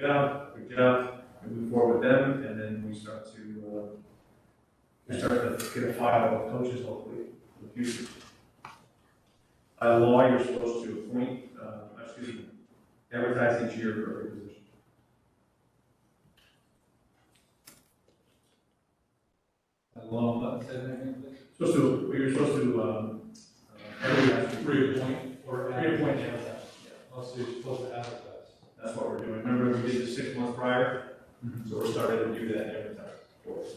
job, good job, we move forward with them, and then we start to, uh, we start to get a file of coaches hopefully in the future. By law, you're supposed to appoint, uh, excuse me, advertise each year for every position. A long button, say that again, please. Supposed to, well, you're supposed to, um, uh, advertise for Three point or. Three point, yeah. Also, you're supposed to advertise. That's what we're doing. Remember, we did this six months prior, Mhm. so we're starting to do that every time. for us.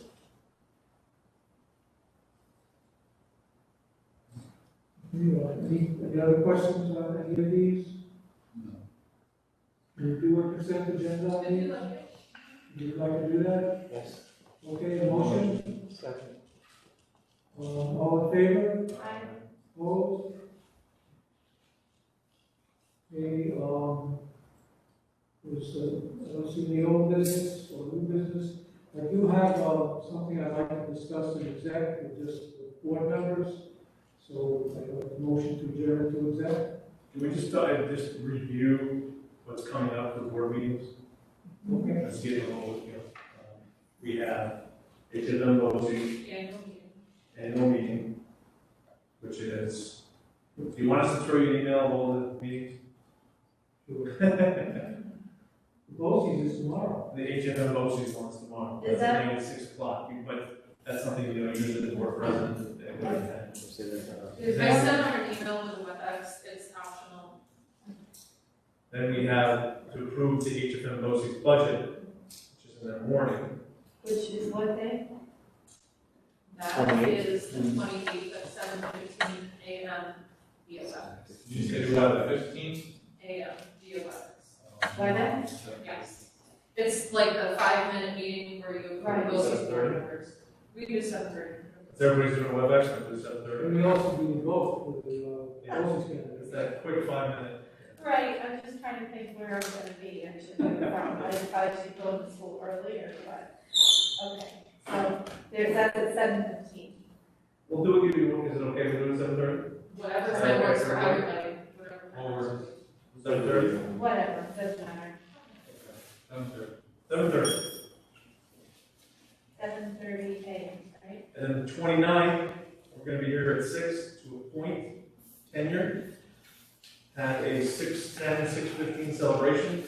Any, any other questions on any of these? We do a consent agenda on these? You'd like to do that? Yes. Okay, a motion? Second. Um, all in favor? Opposed? Okay, um, there's, uh, I don't see any old business or new business. I do have, uh, something I'd like to discuss in exec with just the board members. So I have a motion to adjourn to exec. Can we just, uh, just review what's coming up for board meetings? Okay. Let's get a little, you know, um, we have a Tiverton voting annual meeting, which is, do you want us to throw you an email of all the meetings? The Bosie's is tomorrow. HFM voting one's tomorrow. Is that- I think it's six o'clock, You- but that's something, you know, usually the board president, they would attend. I sent her an email with WebEx, it's optional. Then we have to approve the HFM BOSI's budget, which is in the morning. Which is what day? That is the Mm-hmm. twenty-eighth at seven fifteen AM via WebEx, Did you say you have it? Fifteen? AM via WebEx. Why not? Yes. It's like the five-minute meeting where you Right. go to Seven board thirty? members. We do seven thirty. Is everybody's doing WebEx or is that their, And we also do the vote with the, Yeah. uh, Bosie's it's candidate. that quick five minute? Right, I'm just trying to think where I'm gonna be and should be from, I probably should go to school earlier, but, okay. So, there's, that's at seven fifteen. We'll do it, give you, is it okay if we do it seven thirty? Whatever time works for everybody, whatever. time Or- works. Seven thirty? whatever, doesn't matter, Seven thirty. Seven thirty. seven thirty AM, right? And then the 29th, we're gonna be here at six to appoint tenure. Have a 6:10, 6:15 celebration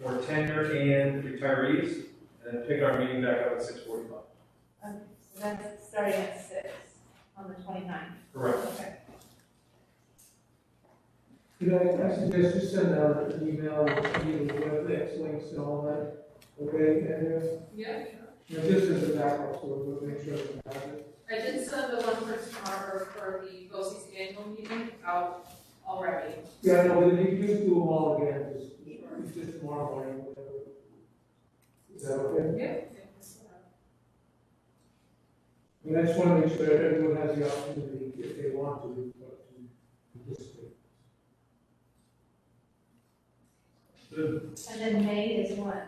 for tenure and retirees, and then pick our meeting back up at six forty-five. Okay, so that's starting at six on the twenty-ninth, Correct. okay. You know, I suggest you send out an email with you, with links, links and all that, okay? And, uh, Yeah, you know, just as a backup, so we'll make sure we have it. I did send the one for tomorrow for the BOSI's annual meeting out already. Yeah, no, but you can just do them all again, just, it's just tomorrow morning, whatever. Is that okay? Yeah. I mean, I just wanna make sure everyone has the opportunity, if they want to, but to participate. Good. And then May is what?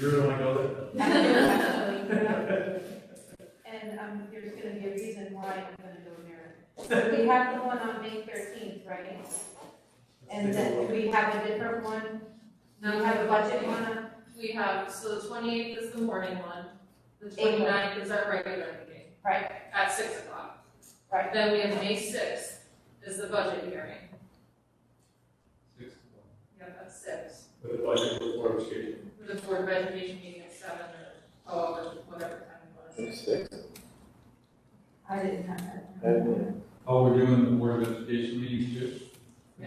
You really wanna go And, um, there's gonna be a reason why I'm gonna go there. We have the one on May thirteenth, right? there? And then we have a different one, we Now we have a budget one on We have, so the twenty-eighth is the morning one, the Eight. 29th is our regular meeting. Right. At six o'clock. Right. Then we have May sixth is the budget hearing, Six. yeah, that's six. With the budget before it was here. With the board of education meeting at seven or however, whatever time it was. I didn't have that. I didn't. Oh, we're doing the Board of Education meetings too? I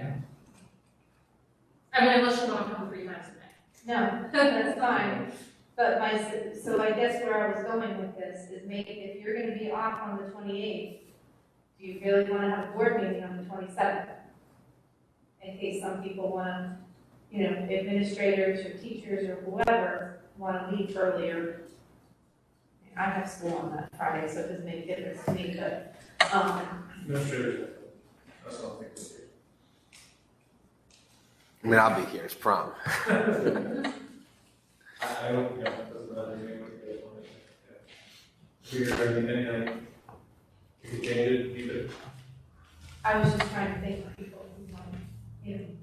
mean, unless you want to come three times a No, night. that's fine, but my, s- so I guess where I was going with this is maybe if you're gonna be off on the twenty-eighth, do you really wanna have a board meeting on the twenty-seventh? In case some people wanna, you know, administrators or teachers or whoever wanna leave earlier. I have school on that Friday, so it doesn't make a difference to me, but, um, Administrators. That's what I'm thinking. I mean, I'll be here, it's prom. I, I don't, yeah, it doesn't matter to me what you guys want to do. Figure everything, anything. You can change it, leave it. I was just trying to think of people who wanna, you know,